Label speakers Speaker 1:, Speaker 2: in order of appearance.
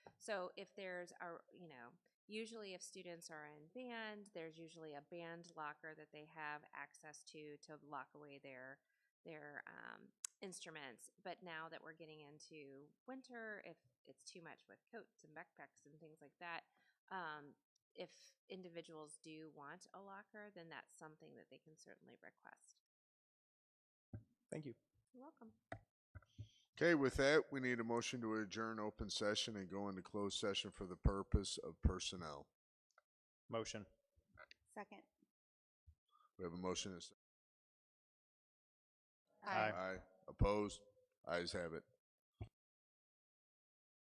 Speaker 1: So if there's a, you know, usually if students are in band, there's usually a band locker that they have access to to lock away their their um, instruments. But now that we're getting into winter, if it's too much with coats and backpacks and things like that, um, if individuals do want a locker, then that's something that they can certainly request.
Speaker 2: Thank you.
Speaker 1: You're welcome.
Speaker 3: Okay, with that, we need a motion to adjourn open session and go into closed session for the purpose of personnel.
Speaker 2: Motion.
Speaker 4: Second.
Speaker 3: We have a motion. and a s-
Speaker 2: Aye.
Speaker 3: Aye. Opposed? Ayes have it.